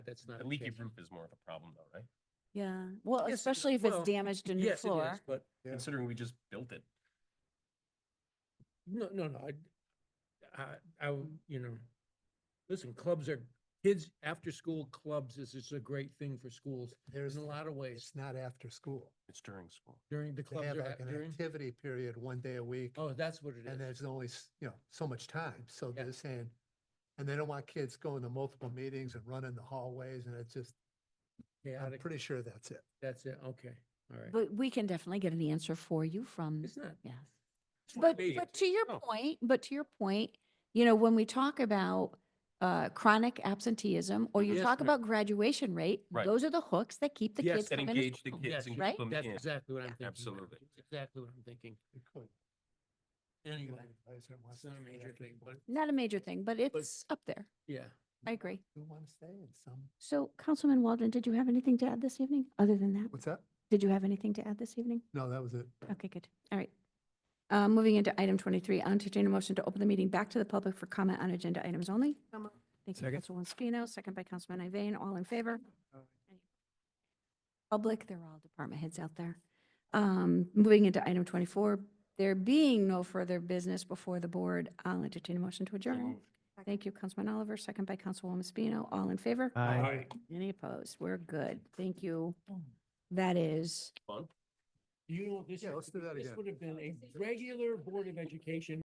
that's not. The a leaky change. roof is more of a problem though, right? Yeah, well, Yes, especially if it's well, damaged in your Yes, it floor. is, but Yeah. Considering we just built it. no, no, no, I, I, I, w- you know, listen, clubs are, kids, after-school clubs is, is a great thing for schools There's, in a lot of ways it's not after school. It's during school. during the They clubs have are like at- an during. activity period one day a week. Oh, that's what it And is. there's only, s- you know, so much time, so Yeah. they're saying, and they don't want kids going to multiple meetings and running the hallways, and it's just, I'm Chaotic, pretty sure that's it. that's it, okay, all right. But we can definitely get an answer for you from, It's not. yes. It's not But, me. but to your Oh. point, but to your point, you know, when we talk about uh, chronic absenteeism or you Yes, talk ma'am. about graduation rate, Right. those are the hooks that keep the Yes, kids That coming to engage the school. kids Yes, and right? keep them That's in. exactly what I'm thinking. Oh, Absolutely. That's Exactly what I'm thinking. It could. Anyway, Advisor wants it's not to a stay major after thing, school. but Not a major thing, but it's up there. yeah. I agree. Mm. Who want to stay in some? So Councilman Waldron, did you have anything to add this evening, other than that? What's that? Did you have anything to add this evening? No, that was it. Okay, good. All right. Uh, Moving into item 23, I'll entertain a motion to open the meeting back to the public for comment on agenda items only. Thank you, Second. Councilwoman Spino, second by Councilman Iveyne, all in favor? Aye. Public, they're all department heads out there. Um, Moving into item 24, there being no further business before the board, I'll entertain a motion to adjourn. moved. Thank you, Councilman Oliver, second by Councilwoman Spino, all in favor? Any opposed? We're good. Thank you. That is. Fun. You know, this, Yeah, let's do that this again. would have been a regular Board of Education